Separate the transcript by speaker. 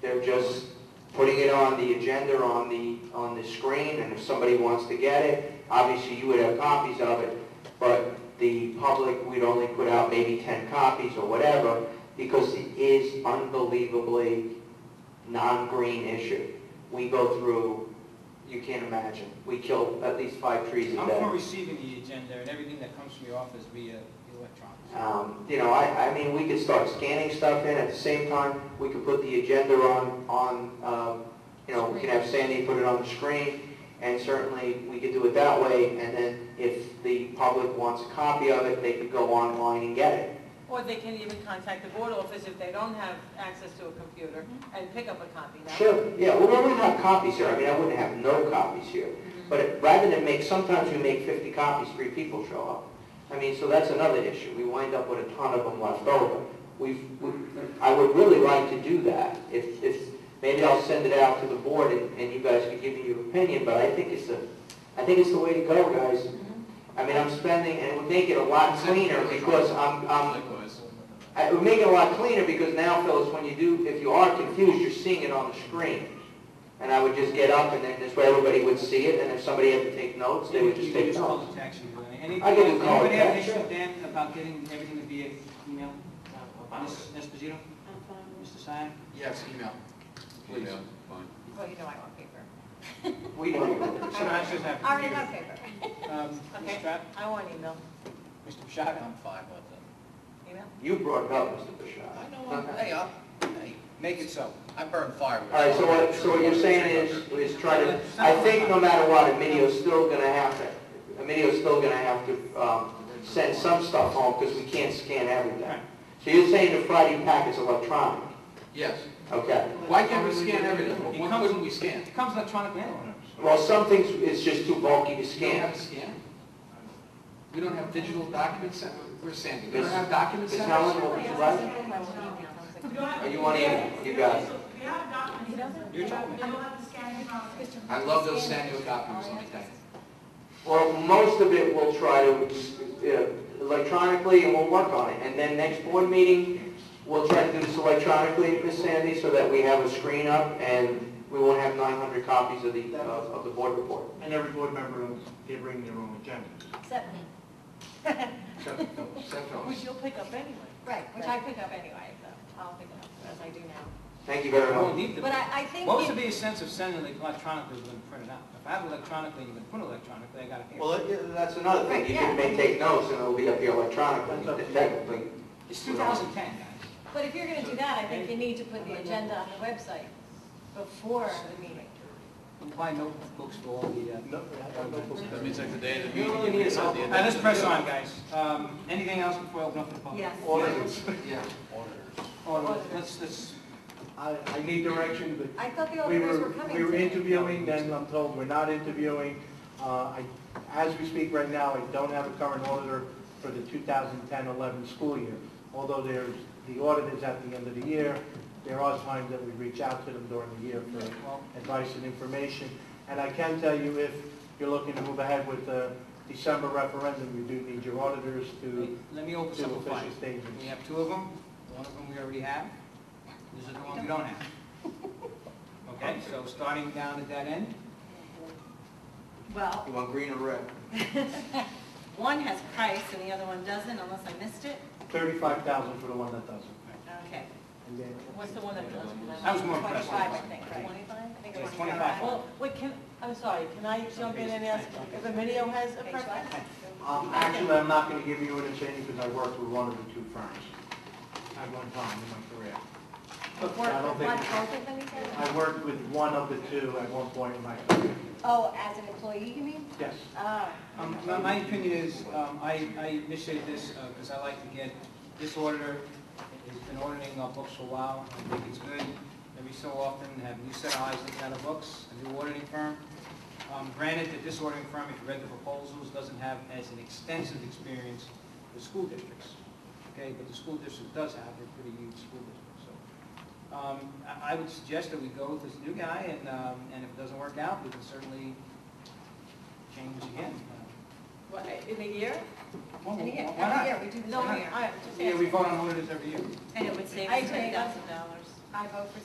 Speaker 1: They're just putting it on the agenda, on the, on the screen, and if somebody wants to get it, obviously you would have copies of it, but the public, we'd only put out maybe 10 copies or whatever, because it is unbelievably non-green issue. We go through, you can't imagine, we kill at least five trees a
Speaker 2: I'm for
Speaker 1: day.
Speaker 2: receiving the agenda and everything that comes from your office via electronics.
Speaker 1: Um, You know, I, I mean, we could start scanning stuff in at the same time, we could put the agenda on, on, um, you know, we could have Sandy put it on the screen, and certainly we could do it that way, and then if the public wants a copy of it, they could go online and get it.
Speaker 3: Or they can even contact the board office if they don't have access to a computer and pick up a copy. That-
Speaker 1: Sure, yeah, well, we don't have copies here, I mean, I wouldn't have no copies here, but it- rather than make, sometimes we make 50 copies, three people show up. I mean, so that's another issue, we wind up with a ton of them left over. We've, we- I would really like to do that, if, if, maybe I'll send it out to the board and and you guys can give me your opinion, but I think it's the, I think it's the way to go, guys.
Speaker 3: Mm-hmm.
Speaker 1: I mean, I'm spending, and it would make it a lot cleaner, because
Speaker 4: Um,
Speaker 1: I'm, I'm,
Speaker 4: Likewise.
Speaker 1: I- It would make it a lot cleaner because now, Phyllis, when you do, if you are confused, you're seeing it on the screen. And I would just get up and then this way everybody would see it and if somebody had to take notes, they would just
Speaker 2: You can
Speaker 1: take
Speaker 2: just call
Speaker 1: notes.
Speaker 2: the tax you. Anything,
Speaker 1: I can do call
Speaker 2: anybody
Speaker 1: it
Speaker 2: have an
Speaker 1: back,
Speaker 2: issue,
Speaker 1: sure.
Speaker 2: Dan, about getting everything via email? Ms. Esposito? Mr. Sine?
Speaker 4: Yes, email. Please.
Speaker 5: Email, fine.
Speaker 3: Well, you know I want paper.
Speaker 1: We don't.
Speaker 2: Mr. Masters have.
Speaker 3: I already have paper.
Speaker 2: Um, Ms.
Speaker 3: Okay.
Speaker 2: Strapp?
Speaker 3: I want email.
Speaker 2: Mr. Bishaga? I'm fine with them.
Speaker 3: Email?
Speaker 1: You brought it up, Mr. Bashar.
Speaker 4: I know, I'm- hey, I'm, hey,
Speaker 2: Make it so.
Speaker 4: I burn firewood.
Speaker 1: All right, so what, so what you're saying is, is try to, I think no matter what, Emilio's still gonna have to, Emilio's still gonna have to, um, send some stuff home because we can't scan everything. So you're saying the Friday packet's electronic,
Speaker 4: Yes.
Speaker 1: okay?
Speaker 4: Why can't we scan everything? Why couldn't we scan?
Speaker 2: It comes electronic mail.
Speaker 1: Well, some things, it's just too bulky to
Speaker 4: We don't
Speaker 1: scan.
Speaker 4: have to scan. We don't have digital documents sent, we're sending. We don't have documents
Speaker 1: Ms.
Speaker 4: sent.
Speaker 1: Helen, what would you like?
Speaker 3: I want email.
Speaker 1: Are you on email? You got it.
Speaker 6: We have documents,
Speaker 2: Your job.
Speaker 6: we don't have to scan it out.
Speaker 4: I love those Sanyo documents, let me tell you.
Speaker 1: Well, most of it we'll try to, uh, electronically, and we'll work on it. And then next board meeting, we'll try to do this electronically, Miss Sandy, so that we have a screen up and we won't have 900 copies of the, of of the board report.
Speaker 7: And every board member, they bring their own agenda.
Speaker 8: Except me.
Speaker 4: Except- no, except for
Speaker 3: Which
Speaker 4: us.
Speaker 3: you'll pick up anyway.
Speaker 8: Right,
Speaker 3: Which I pick up anyway, so I'll pick it up as I do now.
Speaker 1: Thank you very
Speaker 2: I won't
Speaker 1: much.
Speaker 2: need them.
Speaker 8: But I, I think,
Speaker 2: What would
Speaker 8: it-
Speaker 2: be a sense of sending it electronically when printed out? If I have it electronically, you can print electronically, I got it here.
Speaker 1: Well, yeah, that's another thing. You can make, take notes and it'll be up here electronically, technically.
Speaker 2: It's 2010, guys.
Speaker 8: but if you're gonna do that, I think you need to put the agenda on the website before the meeting.
Speaker 2: Buy notebooks for all the, uh...
Speaker 5: That means like the day of the
Speaker 2: You
Speaker 5: meeting,
Speaker 2: really
Speaker 5: you
Speaker 2: need
Speaker 5: miss
Speaker 2: it all.
Speaker 5: out the
Speaker 2: All
Speaker 5: end.
Speaker 2: right, let's press on, guys. Um, anything else before I open up to the public?
Speaker 3: Yes.
Speaker 7: Auditors,
Speaker 4: Yeah, auditors.
Speaker 2: Or let's, let's,
Speaker 7: I, I need direction, but
Speaker 8: I thought the
Speaker 7: we
Speaker 8: auditors were
Speaker 7: were,
Speaker 8: coming.
Speaker 7: we were
Speaker 8: today.
Speaker 7: interviewing, then I'm told we're not interviewing. Uh, I, as we speak right now, I don't have a current auditor for the 2010-11 school year. Although there's, the audit is at the end of the year, there are times that we reach out to them during the year for
Speaker 2: well,
Speaker 7: advice and information. And I can tell you, if you're looking to move ahead with the December referendum, you do need your auditors to,
Speaker 2: let me open
Speaker 7: to
Speaker 2: up a file.
Speaker 7: official statements.
Speaker 2: We have two of them. One of them we already have. This is the one we don't have. Okay, so starting down at that end.
Speaker 3: Well,
Speaker 1: You want green or red?
Speaker 3: one has price and the other one doesn't, unless I missed it.
Speaker 7: 35,000 for the one that doesn't.
Speaker 3: Okay.
Speaker 7: And then,
Speaker 3: What's the one that doesn't?
Speaker 2: That was more impressive.
Speaker 3: 25, I think, right?
Speaker 8: Twenty-five?
Speaker 3: I think
Speaker 2: Yeah,
Speaker 3: it's
Speaker 2: 25.
Speaker 3: Well, wait, can, I'm sorry, can I jump in and ask if Emilio has a preference?
Speaker 7: um, Actually, I'm not going to give you an opinion because I worked with one of the two firms at one time in my career.
Speaker 8: Work,
Speaker 7: I don't
Speaker 8: what,
Speaker 7: think-
Speaker 8: both of them you said?
Speaker 7: I worked with one of the two at one point in my career.
Speaker 8: Oh, as an employee, you mean?
Speaker 7: Yes.
Speaker 8: Oh,
Speaker 2: Um, my- My opinion is, um, I I initiated this because I like to get, this auditor has been auditing our books for a while. I think it's good every so often to have a new set of eyes looking at our books, a new auditing firm. Um, Granted that this auditing firm, if you read the proposals, doesn't have as an extensive experience with school districts. Okay, but the school district does have a pretty huge school district, so. um, I I would suggest that we go with this new guy and um, and if it doesn't work out, we can certainly change again.
Speaker 3: What, in a year?
Speaker 2: Well,
Speaker 8: and yeah,
Speaker 2: why
Speaker 8: every
Speaker 2: not?
Speaker 8: year we do the
Speaker 3: No,
Speaker 8: same
Speaker 3: I,
Speaker 8: year.
Speaker 3: I'm just
Speaker 2: Yeah, we
Speaker 3: asking.
Speaker 2: vote on auditors every year.
Speaker 3: And it would save
Speaker 8: I
Speaker 3: us
Speaker 8: agree.
Speaker 3: $10,000.
Speaker 8: I vote for